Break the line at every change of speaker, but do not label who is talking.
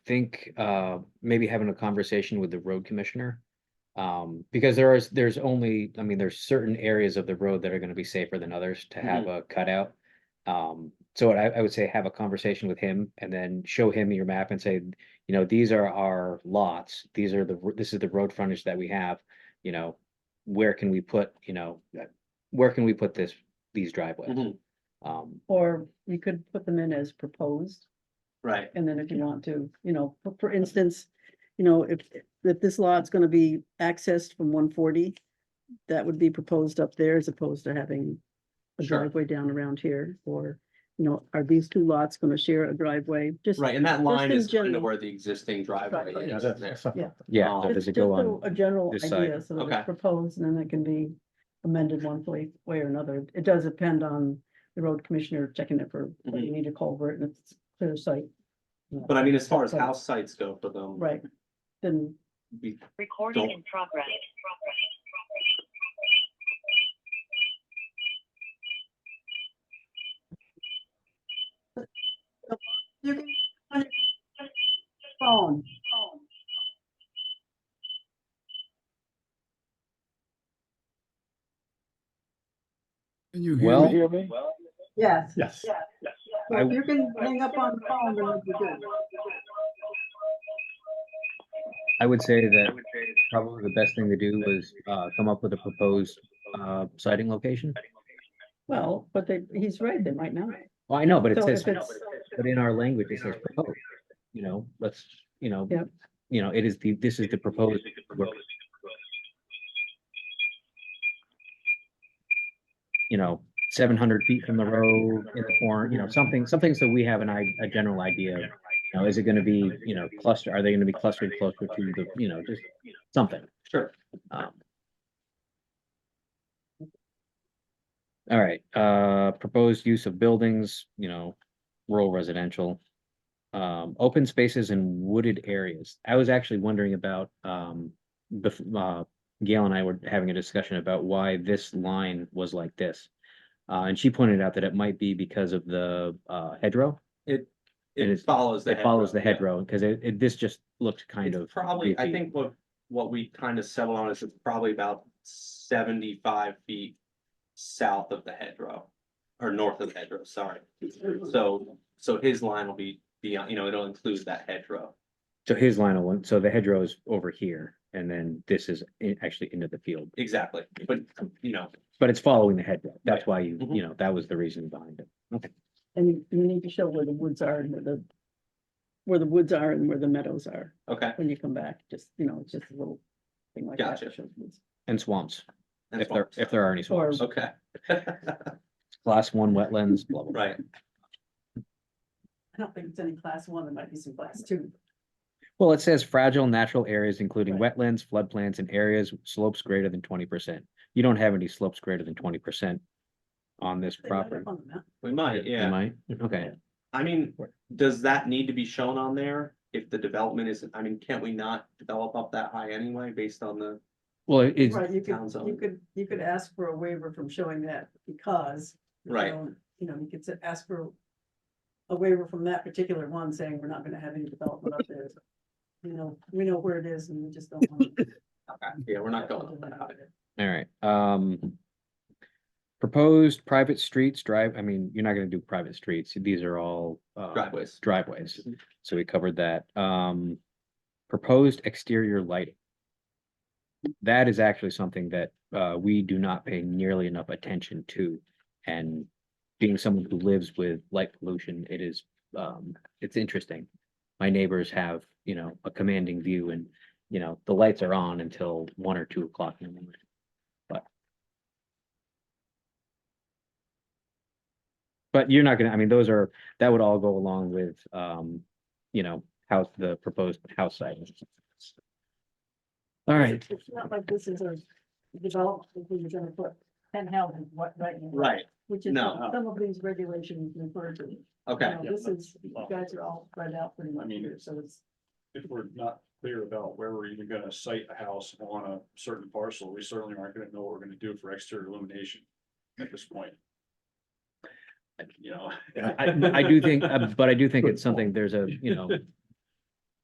think uh maybe having a conversation with the road commissioner. Um, because there is, there's only, I mean, there's certain areas of the road that are gonna be safer than others to
Mm-hmm.
have a cutout. Um, so I I would say have a conversation with him and then show him your map and say, you know, these are our lots, these are the, r- this is the road frontage that we have. You know, where can we put, you know, uh, where can we put this, these driveways?
Mhm,
Mm-hmm.
Um,
Or you could put them in as proposed,
Right,
and then if you want to, you know, for- for instance, you know, if, if this lot's gonna be accessed from one forty, that would be proposed up there as opposed to having a
Sure.
driveway down around here, or, you know, are these two lots gonna share a driveway? Just
right, and that line
in
is kind
general.
of where the existing driveway
Driveway.
Yeah,
is
that's-
there.
that's not-
Yeah.
yeah,
Oh.
so
Just
does it
just
go
a
on?
a general
this side?
idea, so that
Okay.
it's proposed, and then it can be amended one way, way or another. It does depend on the road commissioner checking it for, whether
Mm-hmm.
you need a culvert, and it's clear sight.
But I mean, as far as
Right.
house sites go for them.
Right, then,
we
Recording
Don't-
in progress.
you can. on your Phone.
Can you hear
Well-
me? Hear me?
Yes.
Yes,
I-
You can hang up on the phone, then it'll be good.
I would say that probably the best thing to do was uh come up with a proposed uh sighting location.
Well, but they, he's right, they might not.
Well, I know, but it
So
says,
if it's-
but in our language, it says proposed, you know, let's, you know.
Yep.
You know, it is the, this is the proposed. work. You know, seven hundred feet from the road in the corner, you know, something, something so we have an i- a general idea. of, You know, is it gonna be, you know, cluster, are they gonna be clustered closer to the, you know, just something?
Sure.
Um, All right, uh, proposed use of buildings, you know, rural residential. Um, open spaces and wooded areas. I was actually wondering about, um, bef- uh, Gail and I were having a discussion about why this line was like this. Uh, and she pointed out that it might be because of the, uh, hedgerow.
It,
And
it
it's-
follows the.
It follows the
road, yeah.
hedgerow, because it, it, this just looked kind of.
It's probably, I
goofy.
think what, what we kind of settled on is it's probably about seventy-five feet south of the hedgerow. Or north of the hedgerow, sorry. So, so his line will be beyond, you know, it'll include that hedgerow.
So his line of one, so the hedgerow is over here, and then this is i- actually into the field,
Exactly, but, you know,
but it's following the hedgerow. That's why you,
Mhm.
you know, that was the reason behind it.
And you, you need to show where the woods are and where the, where the woods are and where the meadows are
okay.
when you come back, just, you know, it's just a little thing like that.
Gotcha.
shows woods.
And swamps,
that's
if there,
fine.
if there are any
Or-
swamps,
Okay.
class one wetlands, blah, blah, blah.
Right,
I don't think it's any class one, there might be some class two.
Well, it says fragile natural areas, including
Right.
wetlands, floodplains, and areas with slopes greater than twenty percent. You don't have any slopes greater than twenty percent on this
They might have
property.
on the map.
we
Am
might, yeah.
I? Okay,
I mean, does that need to be shown on there? If the development isn't, I mean, can't we not develop up that high anyway, based on the?
well, it's,
Right, you
town
could,
zone.
you could, you could ask for a waiver from showing that because. you
Right.
don't- You know, you could s- ask for a waiver from that particular one saying we're not gonna have any development up there. You know, we know where it is and we just don't. want to-
Yeah, we're not going up that high.
all right, um. Proposed private streets, drive, I mean, you're not gonna do private streets. These are all, uh,
driveways.
driveways. So we covered that. Um, proposed exterior lighting. That is actually something that, uh, we do not pay nearly enough attention to. And being someone who lives with light pollution, it is, um, it's interesting. My neighbors have, you know, a commanding view and, you know, the lights are on until one or two o'clock in the morning. But. But you're not gonna, I mean, those are that would all go along with, um, you know, house, the proposed house site. All right,
It's not like this is a development, where you're gonna put ten houses, what, right? now,
Right,
Which is
no.
what some of these regulations refer to. You
okay,
know,
Yeah,
This
that's-
is, you guys are all spread out pretty much
mean,
here, so it's.
if we're not clear about where we're even gonna site a house on a certain parcel, we certainly aren't gonna know what we're gonna do for exterior illumination at this point. You know.
I, I do think, uh, but I do think it's something, there's a, um, you know,